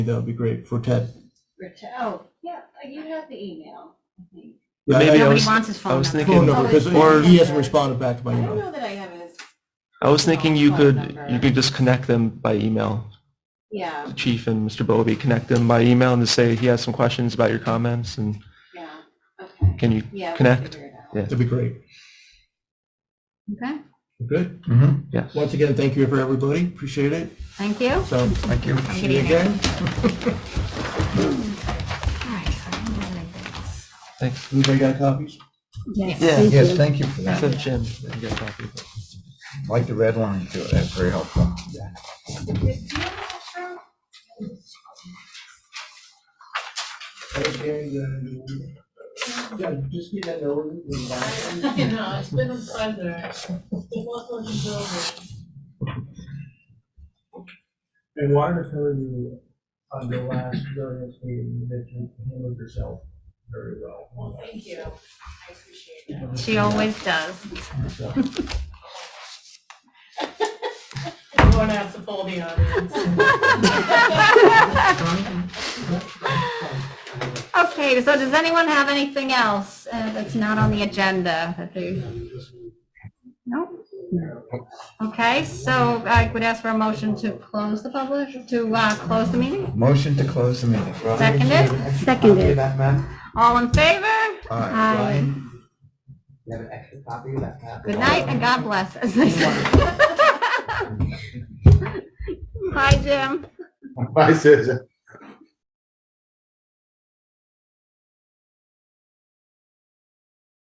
That would be great for Ted. Rich, oh, yeah, you have the email, I think. Yeah, I- Maybe I I was- was, Nobody wants his I phone was number. Phone thinking- number, because Or- he hasn't responded back to my I don't email. know that I have his, I was thinking you Phone could, number. you could just connect them by email, yeah, the chief and Mr. Bowlby, connect them by email and just say he has some questions about your comments and yeah, okay. can you, Yeah, we'll connect? figure it out. yeah. That'd be great. Okay, Good. Mm-hmm. Yes. Once again, thank you for everybody. Appreciate it. thank you. All So, Thank you. Have a see good you evening. again. right, so I don't have anything else. Thanks. Anybody got copies? Yes, thank you for Send that. Jim, you got a copy. Like the red line too, that's very helpful. Yeah, just get that over. You know, it's been a pleasure. Welcome to Dover. And wanted to tell you on the last variance meeting that you handled yourself very well. Thank you. I appreciate it. She always does. Everyone has to poll the audience. Okay, so does anyone have anything else uh, that's not on the agenda that they? No? Okay, so I would ask for a motion to close the public, to uh, close the meeting? Motion to close the meeting. Seconded? Seconded. That man, All in favor? Aye. Aye. you have an extra copy of that man? Good night and God bless. as they say. Bye, Jim. Bye, Susan.